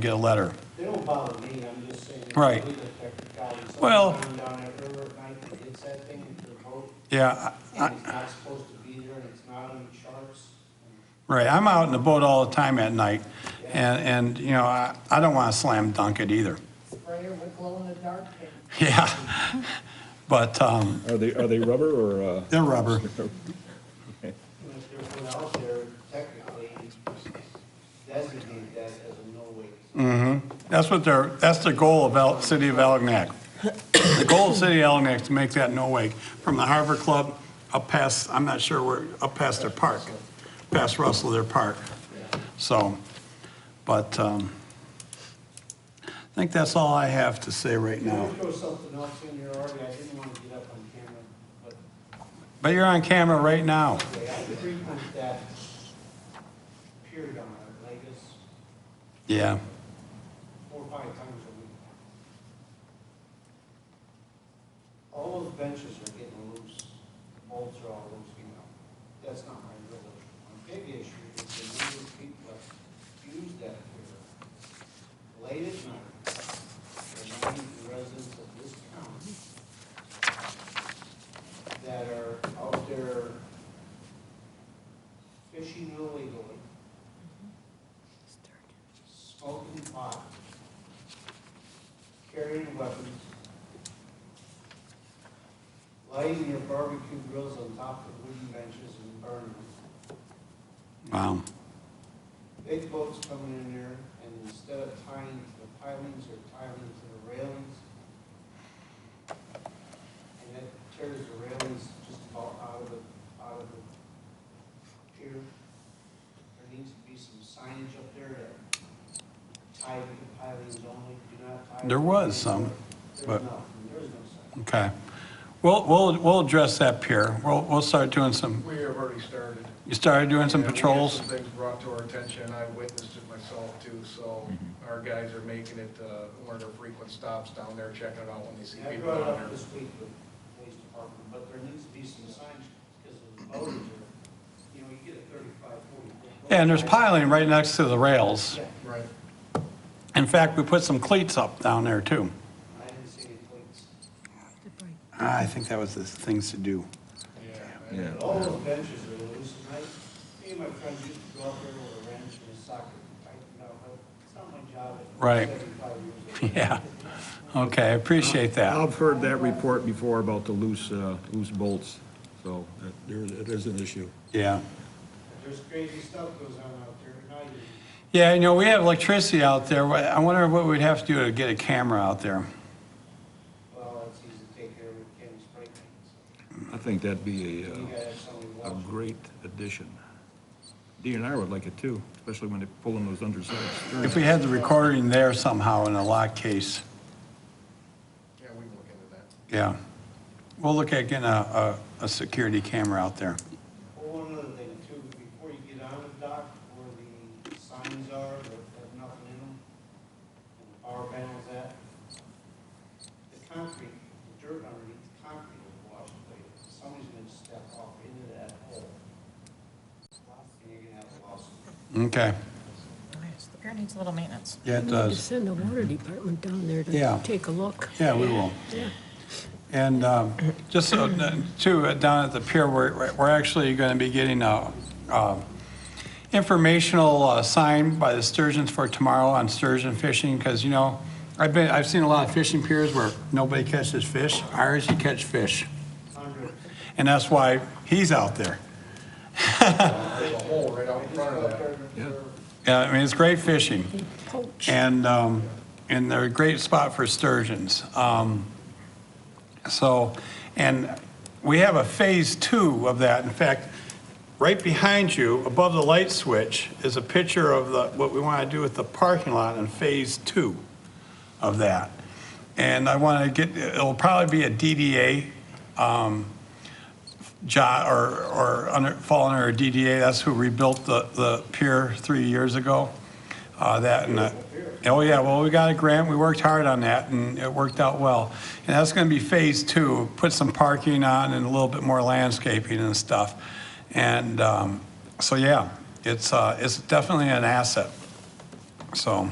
get a letter. They don't bother me, I'm just saying. Right. we get technicalities. Something Well- Down that river at night, that hits that thing into the boat, Yeah, I- and it's not supposed to be there, and it's not on the charts. Right, I'm out in the boat all the time at night, and, and, you know, I, I don't want to slam dunk it either. sprayer with glow-in-the-dark paint. Yeah, but, um, Are they, are they rubber or, uh, they're rubber. And if there's one out there, technically, designate that as a no wake. That's what their, that's the goal of El, City of Algonac. The goal of City of Algonac is to make that no wake from the Harbor Club up past, I'm not sure where, up past their park, past Russell, their park. So, but, um, I think that's all I have to say right Can now. we throw something else in there already? I didn't want to get up on camera, but But you're on camera right now. okay, I could frequent that pier down there, Vegas, Yeah. four or five times a week. All those benches are getting loose, The bolts are all loose, you know. That's not my real issue. My big issue is the number of people that use that pier late at night, reminding the residents of this county that are out there fishing illegally, smoking pot, carrying weapons, lighting your barbecue grills on top of wooden benches and burning them. Wow. Big boats coming in there, and instead of tying to the pilings, they're tying to the railings. And that tears the railings just about out of the, out of the pier. There needs to be some signage up there that tie to the pilings only, do not tie. to There the was railings. some, There's but- no, there is no sign. Okay. We'll, we'll, we'll address that pier. We'll, we'll start doing some, We have already started. you started doing some And we had patrols? some things brought to our attention, I witnessed it myself too, so Mm-hmm. our guys are making it uh, one of their frequent stops down there, checking it out when they see And I people brought it down up there. this week with the police department, but there needs to be some signs, because the voters are, you know, you get a thirty-five, forty. Yeah, and there's piling right next to the rails. Yeah, Right. In fact, we put some cleats up down there too. I didn't see any plates. Ah, I think that was the things to do. Yeah. yeah, All those benches are loose, and I, me and my friends used to go out there with a wrench and a socket, I, you know, but it's not my job. at Right. Seventy-five years old. Yeah. Okay, I appreciate that. I've heard that report before about the loose, uh, loose bolts, so that there, it is an issue. Yeah. There's crazy stuff goes on out there at night, and Yeah, you know, we have electricity out there. I wonder what we'd have to do to get a camera out there. well, it's easy to take care of with Kenny's brake things. I think that'd be You a, gotta have somebody uh, a watch. great addition. DNR would like it too, especially when they pull in those undersized If stirrups. we had the recording there somehow in a lock case, Yeah, we can look into that. yeah. We'll look at getting a, a, a security camera out there. Well, one other thing too, before you get on the dock, where the signs are that have nothing in them, and the power panels at, the concrete, the dirt underneath the concrete will wash away. Somebody's gonna step off into that hole. And you're gonna have a lawsuit. Okay. The pier needs a little maintenance. Yeah, it We need to does. send the water department down there Yeah. to take a look. Yeah, we will. Yeah. And um, just so, uh, too, uh, down at the pier, we're, we're actually going to be getting a uh, informational uh, sign by the Sturgeons for tomorrow on sturgeon fishing, because, you know, I've been, I've seen a lot of fishing piers where nobody catches fish. Ours, you catch fish. Hundred, And that's why he's out there. There's a hole right out in front of that. Yeah, I mean, it's great fishing. Poach. and, um, and they're a great spot for sturgeons. Um, So, and we have a phase two of that. In fact, right behind you, above the light switch, is a picture of the, what we want to do with the parking lot in phase two of that. And I want to get, it'll probably be a DDA um, job, or, or under, fall under a DDA. That's who rebuilt the, the pier three years ago. Uh, that and, uh, oh yeah, well, we got a grant, we worked hard on that and it worked out well. And that's gonna be phase two, put some parking on and a little bit more landscaping and stuff. And, um, so yeah, it's, uh, it's definitely an asset, so.